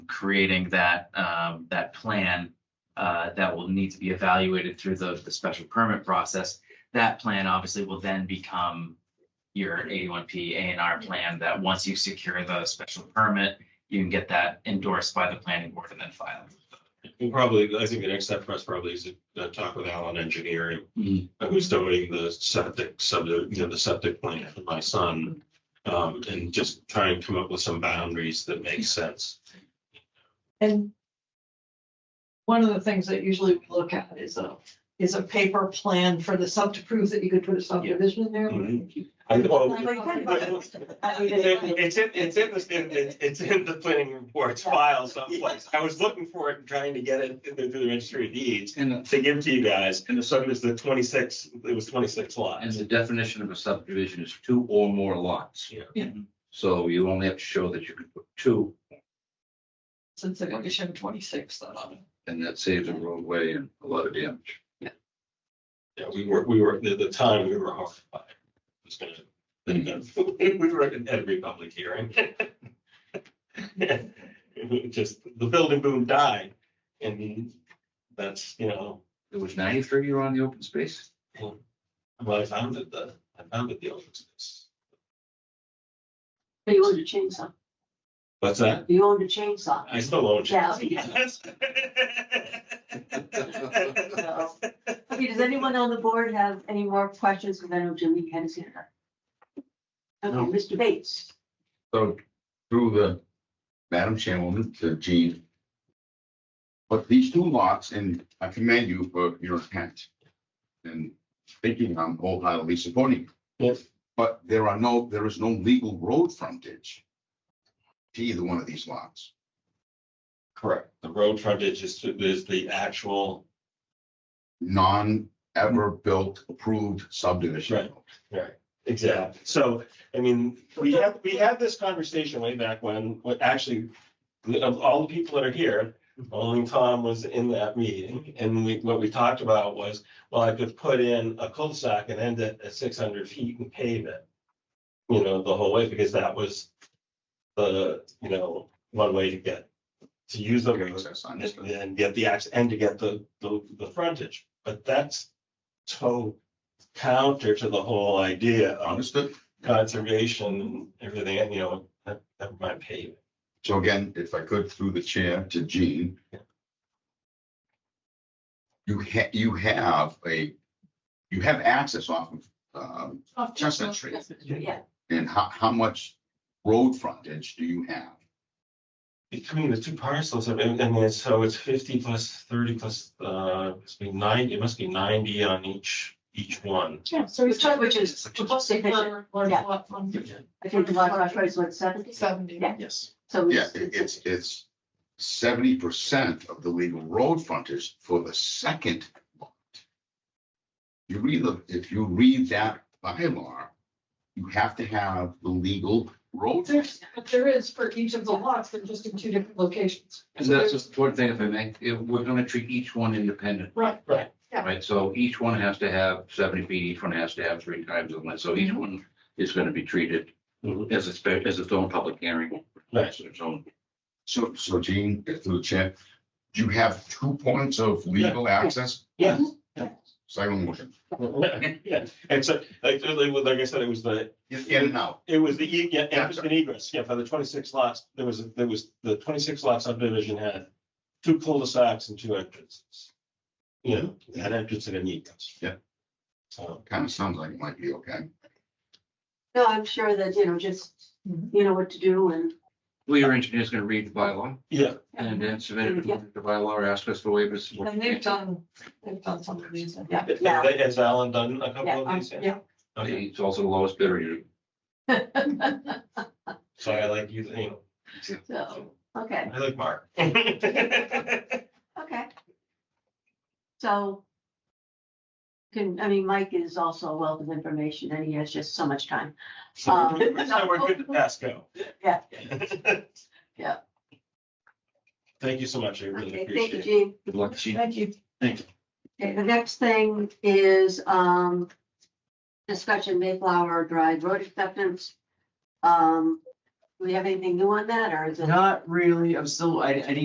creating that, um, that plan uh, that will need to be evaluated through the, the special permit process. That plan obviously will then become your 81P A and R plan that once you secure the special permit, you can get that endorsed by the planning board and then filed. And probably, I think the next step for us probably is to uh, talk with Alan Engineering, Mhm. uh, who's donating the septic, sub, you know, the septic plan for my son. Um, and just try and come up with some boundaries that make sense. And one of the things that usually we look at is a, is a paper plan for the sub to prove that you could put a subdivision in there. Mhm. I know. I mean, it- It's in, it's in the, it's- it's in the planning reports file someplace. I was looking for it and trying to get it through the registry of deeds And, uh, the- to give to you guys. And so it was the twenty-six, it was twenty-six and lots. the definition of a subdivision is two or more lots. Yeah. Yeah. So you only have to show that you could put two, Since the condition twenty-six, though. and that saves a roadway and a lot of damage. Yeah, we were, we were, at the time, we were horrified. It was gonna- We were at every public hearing. Just, the building boom died, and that's, you know, It was ninety-three year on the open space? well, I founded the, I founded the open space. But you owned a chainsaw. What's that? You owned a chainsaw. I still own. Yeah. Yes. So, Okay, does anyone on the board have any more questions? Because I know Julie had his hand up. No. Okay, Mr. Bates. So through the Madam Chairwoman to Jean. But these two lots, and I commend you for your intent and thinking I'm wholeheartedly supporting. you. Yes. But there are no, there is no legal road frontage to either one of these lots. Correct. The road frontage is, is the actual, Non ever built approved subdivision. Right. exactly. So, I mean, we had, we had this conversation way back when, when actually, of all the people that are here, only Tom was in that meeting. And we, what we talked about was, well, I could put in a cul-de-sac and end it at six hundred feet and pave it. You know, the whole way, because that was the, you know, one way to get, to use the road. Access on this. and then get the access and to get the, the, the frontage. But that's so counter to the whole idea of Understood. conservation and everything, you know, that, that might pay. So again, if I could, through the chair to Jean. You ha, you have a, you have access off of, um, Chestnut Street. Yeah, and how, how much road frontage do you have? Between the two parcels, I mean, I mean, so it's fifty plus thirty plus, uh, it's be ninety, it must be ninety on each, each one. yeah, so he's trying, which is, Yeah. I think the lot coverage is what, seventy? Seventy. Yeah. Yes. So Yeah, it's, it- it's, it's, it's seventy percent of the legal road frontage for the second lot. You read, the- if you read that bylaw, you have to have the legal road. frontage. There's, but there is for each of the lots, they're just in two different locations. And that's just one thing if I may, if we're gonna treat each one independent, Right. Right. Yeah. right? So each one has to have seventy feet, each one has to have three times the length, so Mm-hmm. each one is gonna be treated Mhm. as a, spe- as its own public hearing. Right. Its own- So, so Gene, through the chair, you have two points of legal access, Yeah. second motion, Yeah. And so, like, like I said, it was the, in and out. It was the, e- yeah, it was an egress, yeah, for the twenty-six lots, there was, there was, the twenty-six lot subdivision had two cul-de-sacs and two entrances. You know, an entrance and an egress. Yeah. So, Kind of sounds like it might be okay. no, I'm sure that, you know, just, Mhm. you know what to do and, Well, your engineer's gonna read the bylaw yeah, and then submit it to the bylaw or ask us for waivers. And they've done, they've done some of these, yeah. Yeah. has Alan done a couple of Um, these? Yeah. Okay, It's also the lowest bidder. you- so I like you, you know, so, okay, I like Mark. Um, okay. So can, I mean, Mike is also a wealth of information and he has just so much time. So we're- so we're good to pass go. Yeah. Yeah. Yeah. Thank you so much, I really Okay, thank appreciate you, it. Gene. Good luck. Thank you. Okay, the next thing is, um, discussion Mayflower Drive road acceptance. Um, Do we have anything new on that, or is it? Not really, I'm still, I, I need